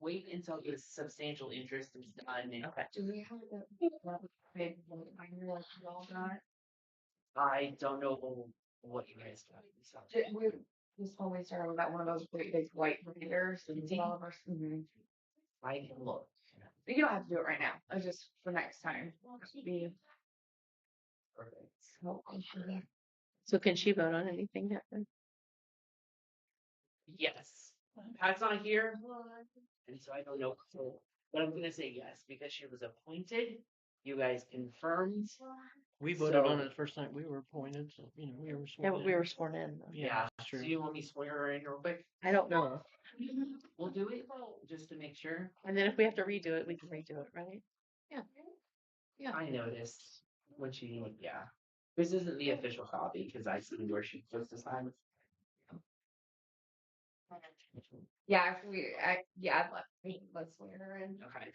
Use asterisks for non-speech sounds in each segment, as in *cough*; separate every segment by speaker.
Speaker 1: wait until the substantial interest is done and
Speaker 2: Okay.
Speaker 3: Do we have the big one iron like we all got?
Speaker 1: I don't know what you guys got. so.
Speaker 3: Did we this always started with that one of those big big white readers and it's all of us. mhm.
Speaker 1: I can look.
Speaker 3: But You don't have to do it right now. It's just for next time. Be
Speaker 1: Perfect.
Speaker 3: so comforting.
Speaker 2: So can she vote on anything that then?
Speaker 1: Yes. Pat's not here. And so I don't know. So, but I'm gonna say yes because she was appointed. You guys confirmed.
Speaker 4: We voted on
Speaker 1: So-
Speaker 4: it the first night we were appointed, so, you know, we were
Speaker 2: Yeah,
Speaker 4: sworn
Speaker 2: but we
Speaker 4: in.
Speaker 1: Mm-hmm.
Speaker 2: were sworn in. though.
Speaker 4: Yeah, that's
Speaker 1: So
Speaker 4: true.
Speaker 1: you want me to swear her in real quick?
Speaker 2: I don't know.
Speaker 1: We'll do it just to make sure.
Speaker 2: And then if we have to redo it, we can redo it, right?
Speaker 1: Yeah, I noticed when she, yeah. This isn't the official copy because I see where she puts the sign.
Speaker 3: Yeah, if we, I, yeah, I'd let, let's wear
Speaker 1: *laughs*
Speaker 3: her *laughs* in.
Speaker 1: Okay.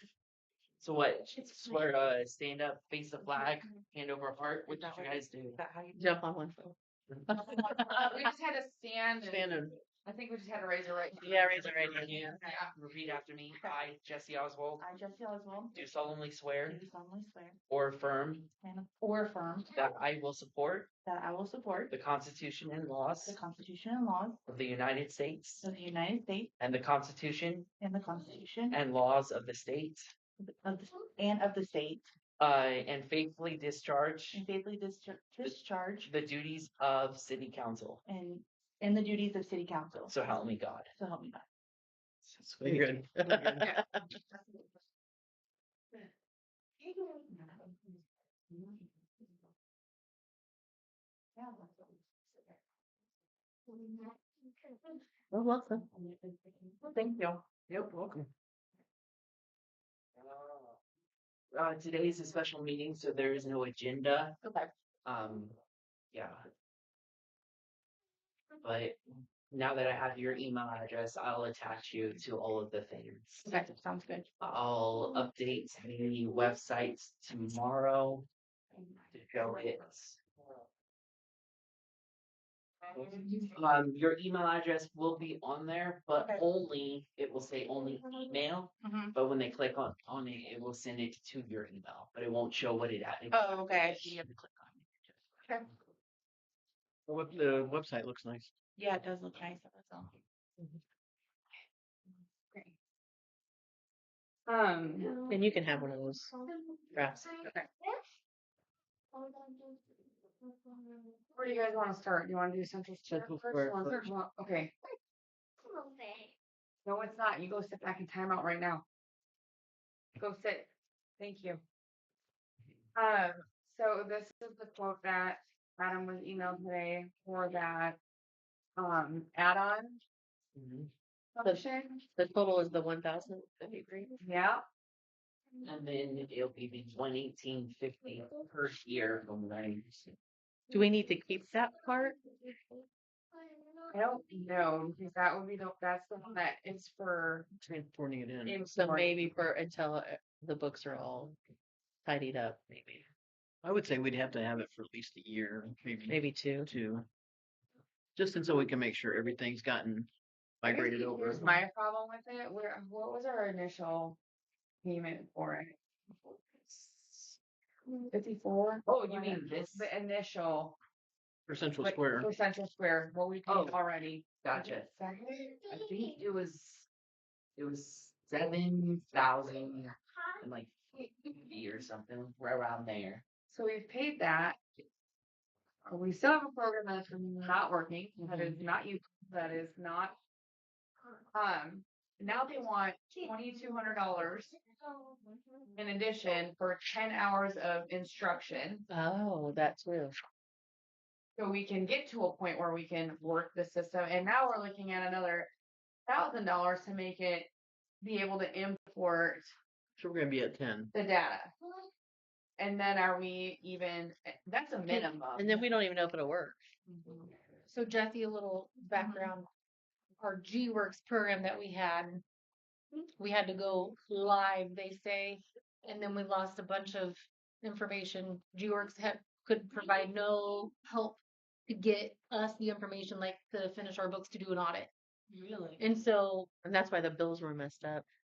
Speaker 1: So what? Swear, uh, stand up, face the flag, hand over heart. What did you guys do?
Speaker 2: that how
Speaker 1: Mm-hmm.
Speaker 2: you? Jump on one foot.
Speaker 3: We just had to stand and
Speaker 4: Standard.
Speaker 3: I think we just had to raise her right. hand.
Speaker 2: Yeah, raise her right hand.
Speaker 1: Yeah.
Speaker 3: Yeah.
Speaker 1: Repeat after me. I, Jesse Oswald,
Speaker 3: I, Jesse Oswald,
Speaker 1: do solemnly swear
Speaker 3: do solemnly swear
Speaker 1: or affirm
Speaker 3: and or affirm
Speaker 1: that I will support
Speaker 3: that I will support
Speaker 1: the Constitution and laws
Speaker 3: the Constitution and laws
Speaker 1: of the United States
Speaker 3: of the United States
Speaker 1: and the Constitution
Speaker 3: and the Constitution
Speaker 1: and laws of the state,
Speaker 3: of the, and of the state,
Speaker 1: uh, and faithfully discharge
Speaker 3: and faithfully dischar- discharge
Speaker 1: the duties of city council.
Speaker 3: and and the duties of city council.
Speaker 1: So help me God.
Speaker 3: So help me God.
Speaker 4: Good.
Speaker 3: *laughs*
Speaker 2: Oh, Well, welcome.
Speaker 3: Thank you.
Speaker 1: Yep, welcome. Uh, today is a special meeting, so there is no agenda.
Speaker 3: Okay.
Speaker 1: Um, yeah. But now that I have your email address, I'll attach you to all of the things.
Speaker 3: Okay, sounds good.
Speaker 1: I'll update the website tomorrow to show it. Um, your email address will be on there, but
Speaker 3: Okay.
Speaker 1: only, it will say only email.
Speaker 3: Mhm.
Speaker 1: But when they click on, on it, it will send it to your email, but it won't show what it added.
Speaker 3: Oh, okay.
Speaker 1: You have to click on it.
Speaker 3: Okay.
Speaker 4: The web- The website looks nice.
Speaker 3: Yeah, it does look nice. That's all. Great. Um,
Speaker 2: And you can have one of those.
Speaker 5: Drafts.
Speaker 3: Okay. where do you guys want to start? Do you want to do central square
Speaker 4: Central
Speaker 3: first?
Speaker 4: Square
Speaker 3: You wanna
Speaker 4: first.
Speaker 3: start- Okay. No, it's not. You go sit back in timeout right now. Go sit. Thank you. Um, so this is the quote that Adam was emailed today for that um add-on
Speaker 1: Mhm.
Speaker 3: function.
Speaker 2: The total is the one thousand fifty-three.
Speaker 3: Yeah.
Speaker 1: Mm-hmm. And then it'll be one eighteen fifty per year from what I understand.
Speaker 2: Do we need to keep that part?
Speaker 3: I don't know because that would be the that's the one that is for
Speaker 4: Transporting it in.
Speaker 2: So
Speaker 3: import.
Speaker 2: maybe for until uh, the books are all tidied up, maybe,
Speaker 4: I would say we'd have to have it for at least a year, maybe
Speaker 2: maybe two.
Speaker 4: two. Just until we can make sure everything's gotten migrated
Speaker 3: Here's-
Speaker 4: over.
Speaker 3: Here's my problem with it. Where what was our initial payment for it? Fifty-four.
Speaker 1: Oh, you mean this?
Speaker 3: The initial
Speaker 4: For Central
Speaker 3: like,
Speaker 4: Square,
Speaker 3: for Central Square, what we paid
Speaker 1: Oh.
Speaker 3: already.
Speaker 1: Gotcha.
Speaker 3: Second?
Speaker 1: I think it was, it was seven thousand and like fifty or something, right around there.
Speaker 3: So we've paid that. Uh, We still have a program that's not working, that is not you, that is not. Um, now they want twenty-two hundred dollars in addition for ten hours of instruction.
Speaker 2: Oh, that too.
Speaker 3: So we can get to a point where we can work the system. And now we're looking at another thousand dollars to make it be able to import
Speaker 4: so we're gonna be at ten.
Speaker 3: the data. And then are we even, eh, that's a minimum.
Speaker 2: And then we don't even know if it'll work.
Speaker 3: Mm-hmm.
Speaker 2: Mm-hmm.
Speaker 6: So Jesse, a little background. Our G Works program that we had, we had to go live, they say, and then we lost a bunch of information. G Works had, could provide no help to get us the information, like to finish our books to do an audit.
Speaker 3: Really?
Speaker 6: And so
Speaker 2: And that's why the bills were messed up.